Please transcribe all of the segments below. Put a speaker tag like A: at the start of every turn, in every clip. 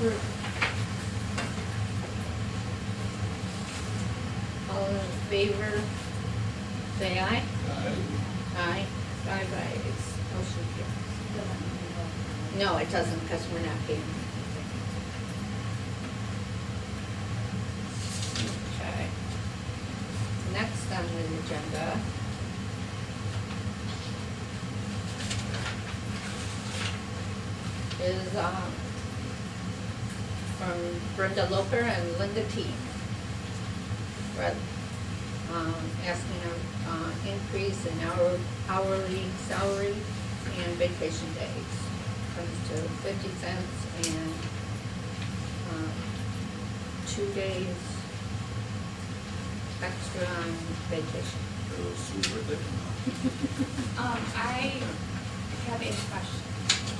A: group. All in favor, say aye. Aye. Aye, aye, it's motion carries. No, it doesn't, because we're not paying. Okay. Next on the agenda. Is, um, from Brenda Loper and Linda T. Brett, um, asking a, uh, increase in hour, hourly salary and vacation days. Comes to fifty cents and, um, two days extra on vacation.
B: Um, I have a question.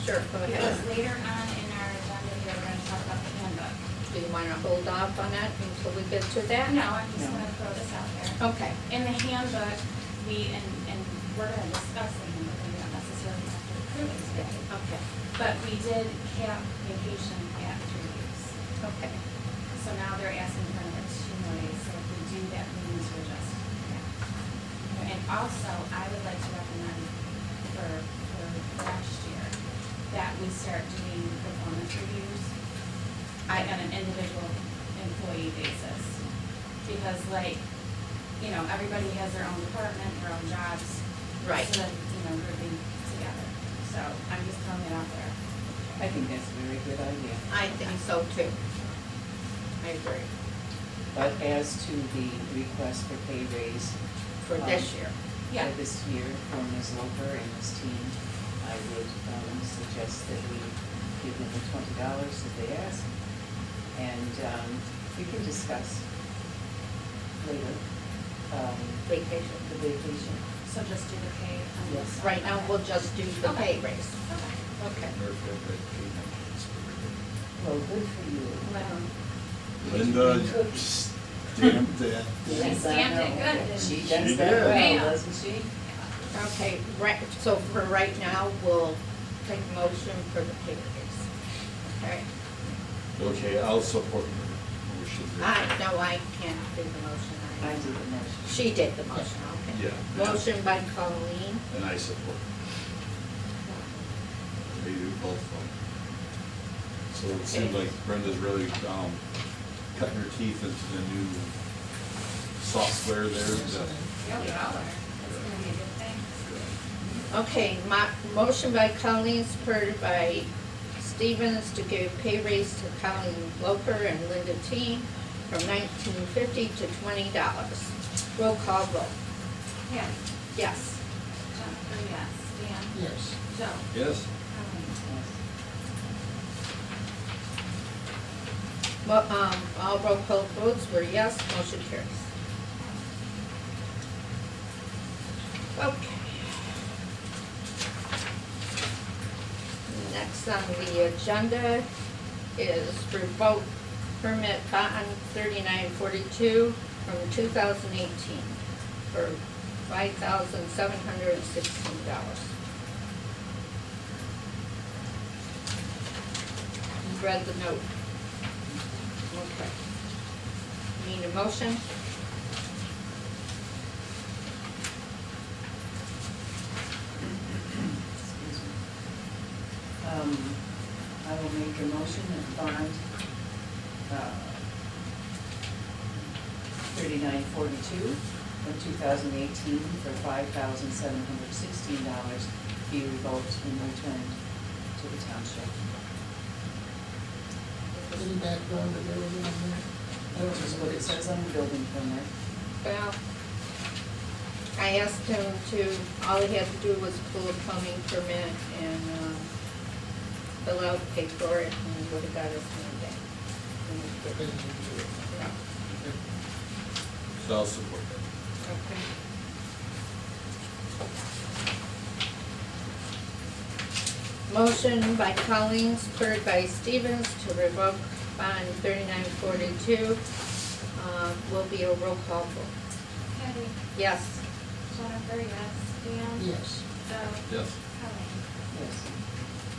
A: Sure, go
B: It
A: ahead.
B: was later on in our agenda, we were gonna talk about the handbook.
A: Do you wanna hold off on that until we get to that?
B: No, I'm just gonna throw this out there.
A: Okay,
B: In the handbook, we, and, and we're gonna discuss the handbook, and we don't necessarily have to approve it today.
A: okay,
B: But we did cap vacation at three weeks.
A: okay.
B: So now they're asking for another two more days, so if we do that, we need to adjust that. And also, I would like to recommend for, for next year, that we start doing performance reviews I- on an individual employee basis. Because like, you know, everybody has their own department, their own jobs.
A: Right.
B: So that, you know, grouping together. So I'm just throwing it out there.
C: I think that's a very good idea.
A: I think so too. I agree,
C: But as to the request for pay raise.
A: for this
C: um,
A: year.
B: Yeah.
C: For this year for Ms. Loper and this team, I would um, suggest that we give them the twenty dollars that they ask. And um, we can discuss later um,
A: vacation.
C: the vacation.
B: So just do the pay. on this
C: Yes.
B: side.
A: Right now, we'll just do the pay
B: Okay.
A: raise.
B: Okay.
A: Okay.
C: Well, good for you.
B: Well,
D: Linda stamped that.
B: She
C: Yes, I
B: stamped it
C: know.
B: good, didn't
C: She
B: she?
C: does
D: She
C: that
D: did.
C: well,
B: Yeah.
C: doesn't she?
A: Okay, right, so for right now, we'll take motion for the pay raise. Okay?
D: Okay, I'll support your motion.
A: I, Ah, no, I can't do the motion.
C: I do the motion.
A: She did the motion, okay.
D: Yeah.
A: Motion by Colleen.
D: And I support. They do both of them. So it seems like Brenda's really, um, cutting her teeth into the new software there. that-
B: Yeah, we all are. It's gonna be a good thing.
A: Okay, my, motion by Colleen, supported by Stevens to give pay raise to Colleen Loper and Linda T from nineteen fifty to twenty dollars. Roll call vote.
B: Yeah,
A: Yes.
B: Jennifer, yes, Dan,
E: Yes.
B: Joe,
D: Yes?
B: Colleen.
C: Yes.
A: Well, um, all roll call votes were yes, motion carries. Okay. Next on the agenda is revoke permit bond thirty-nine forty-two from two thousand eighteen for five thousand seven hundred and sixteen dollars. You read the note. Okay. Need a motion?
C: Excuse me. Um, I will make a motion that bond, uh, thirty-nine forty-two from two thousand eighteen for five thousand seven hundred sixteen dollars be revoked and returned to the township.
E: Any background that there was on there?
C: Which is what it says on the building permit.
A: Well, I asked him to, all he had to do was pull a plumbing permit and, um, fill out, pay for it, and he would've got his money back. And he
E: Okay, you
A: didn't.
E: do it.
A: No.
E: Okay.
D: So I'll support that.
A: Okay. Motion by Collins, spurred by Stevens to revoke bond thirty-nine forty-two. Uh, will be a roll call vote.
B: Patty,
A: Yes.
B: Jennifer, yes, Dan,
E: Yes.
B: Joe,
D: Yes.
B: Colleen.
C: Yes.